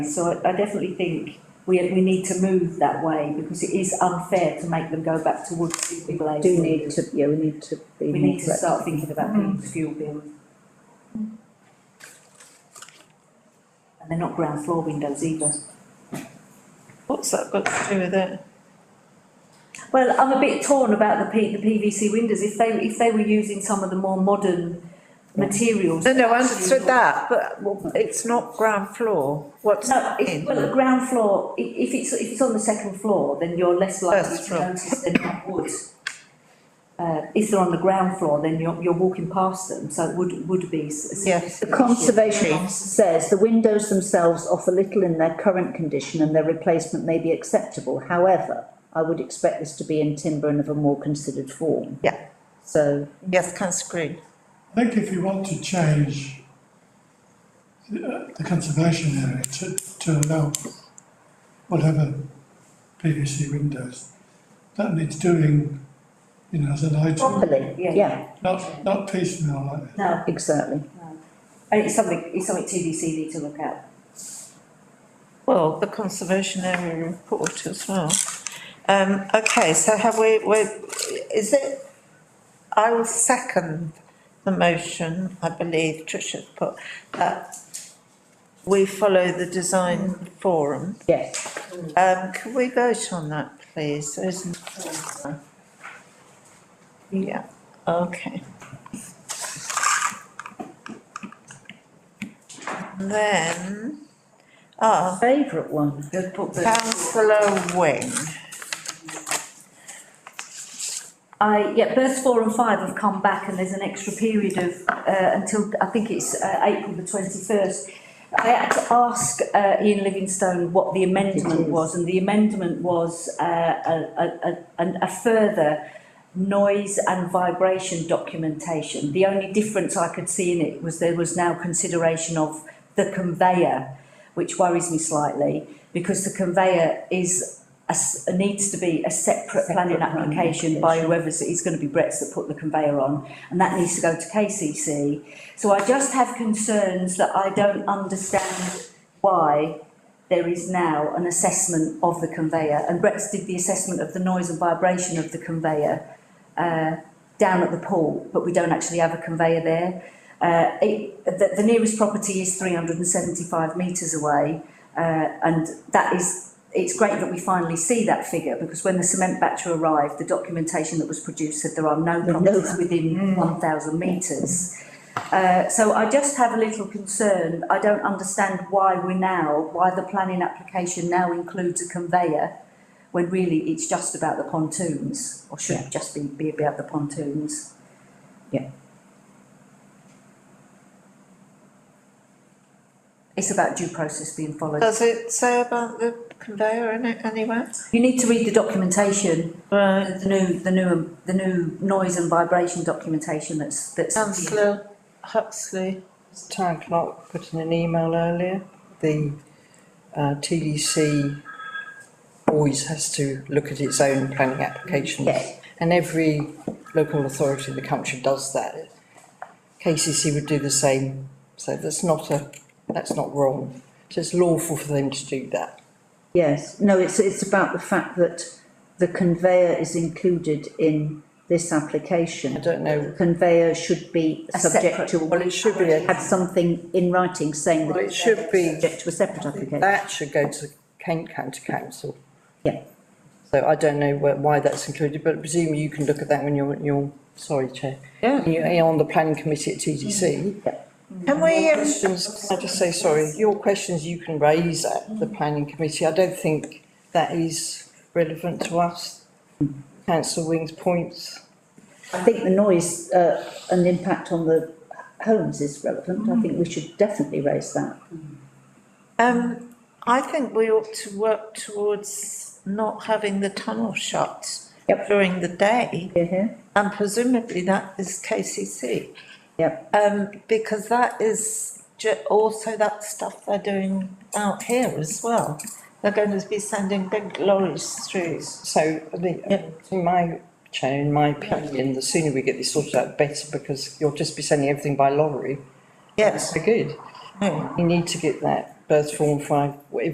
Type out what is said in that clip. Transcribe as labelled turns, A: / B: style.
A: So I, I definitely think we, we need to move that way because it is unfair to make them go back towards fuel
B: We
A: blades.
B: do need to, yeah, we need to be
A: We
B: more.
A: need to
B: flexible.
A: start thinking about
C: Mm.
A: the fuel bill. And they're not ground floor windows either.
C: What's that got to do with it?
A: Well, I'm a bit torn about the P, the PVC windows, if they, if they were using some of the more modern materials.
C: No, no, I understood that, but well, it's not ground floor, what's
A: No,
C: that
A: if,
C: in?
A: well, the ground floor, i- if it's, if it's on the second floor, then you're less likely
C: First
A: to
C: floor.
A: notice than you would. Uh, if they're on the ground floor, then you're, you're walking past them, so it would, would be. s- s-
C: Yes.
B: The Conservation Officer says the windows themselves offer little in their current condition and their replacement may be acceptable. However, I would expect this to be in timber and of a more considered form.
C: Yeah.
B: So,
C: Yes, councillor Green,
D: I think if you want to change the, uh, the conservation area to, to allow whatever PVC windows, that needs doing, you know, as an item,
B: properly,
A: Yeah.
B: yeah,
D: not, not piecemeal like this.
A: No,
B: exactly.
A: and it's something, it's something TDC need to look at.
C: well, the conservation area report as well. Um, okay, so have we, we, is it, I will second the motion, I believe Tricia's put, that we follow the design forum.
B: Yes,
C: Um, can we vote on that, please? There isn't- Yeah, okay. Then, ah,
B: favourite one.
A: They've put the-
C: councillor Wing,
A: I, yeah, births four and five have come back and there's an extra period of, uh, until, I think it's, uh, April the twenty-first. I had to ask, uh, Ian Livingstone what the
B: It
A: amendment
B: is.
A: was and the amendment was, uh, a, a, a, a further noise and vibration documentation. The only difference I could see in it was there was now consideration of the conveyor, which worries me slightly, because the conveyor is, a s- needs to be a separate planning
B: Separate planning
A: application by
B: application.
A: whoever's, it's going to be Brett's that put the conveyor on, and that needs to go to KCC. So I just have concerns that I don't understand why there is now an assessment of the conveyor, and Brett's did the assessment of the noise and vibration of the conveyor uh, down at the pool, but we don't actually have a conveyor there. Uh, it, the, the nearest property is 375 metres away, uh, and that is, it's great that we finally see that figure because when the cement batcher arrived, the documentation that was produced said there are no
B: No.
A: properties Mm. within 1,000 metres. Uh, so I just have a little concern. I don't understand why we now, why the planning application now includes a conveyor when really it's just about the pontoons, or should just be, be about the pontoons.
B: Yeah.
A: It's about due process being followed.
C: does it say about the conveyor in it anywhere?
A: You need to read the documentation,
C: Right,
A: the new, the new, the new noise and vibration documentation that's, that's.
C: councillor Huxley,
E: As Town clerk put in an email earlier, the uh, TDC always has to look at its own planning applications.
B: Yes.
E: And every local authority in the country does that. KCC would do the same, so that's not a, that's not wrong. So it's lawful for them to do that.
B: Yes, no, it's, it's about the fact that the conveyor is included in this application.
E: I don't know.
B: Conveyor should be
A: A
B: subject to.
E: Well, it should be a-
B: Had something in writing saying that.
E: Well, it should be-
B: Subject to a separate application.
E: That should go to Kent County Council.
B: Yeah.
E: So I don't know wh- why that's included, but presumably you can look at that when you're, you're, sorry, Chair.
C: Yeah.
E: You're you're on the planning committee at TDC.
C: can we,
E: Your
C: um,
E: questions, can I just say, sorry, your questions you can raise at the planning committee, I don't think that is relevant to us. Councillor Wing's points,
B: I think the noise, uh, and impact on the homes is relevant, I think we should definitely raise that.
C: Um, I think we ought to work towards not having the tunnel shut
B: Yep.
C: during the day,
B: Hear, hear?
C: and presumably that is KCC.
B: Yep,
C: Um, because that is ju- also that stuff they're doing out here as well. They're going to be sending big lorries through.
E: so I think, in my, Chair, in my opinion, the sooner we get this sorted out, the better, because you'll just be sending everything by lorry.
C: Yes,
E: So good,
C: no,
E: you need to get that birth form five, whatever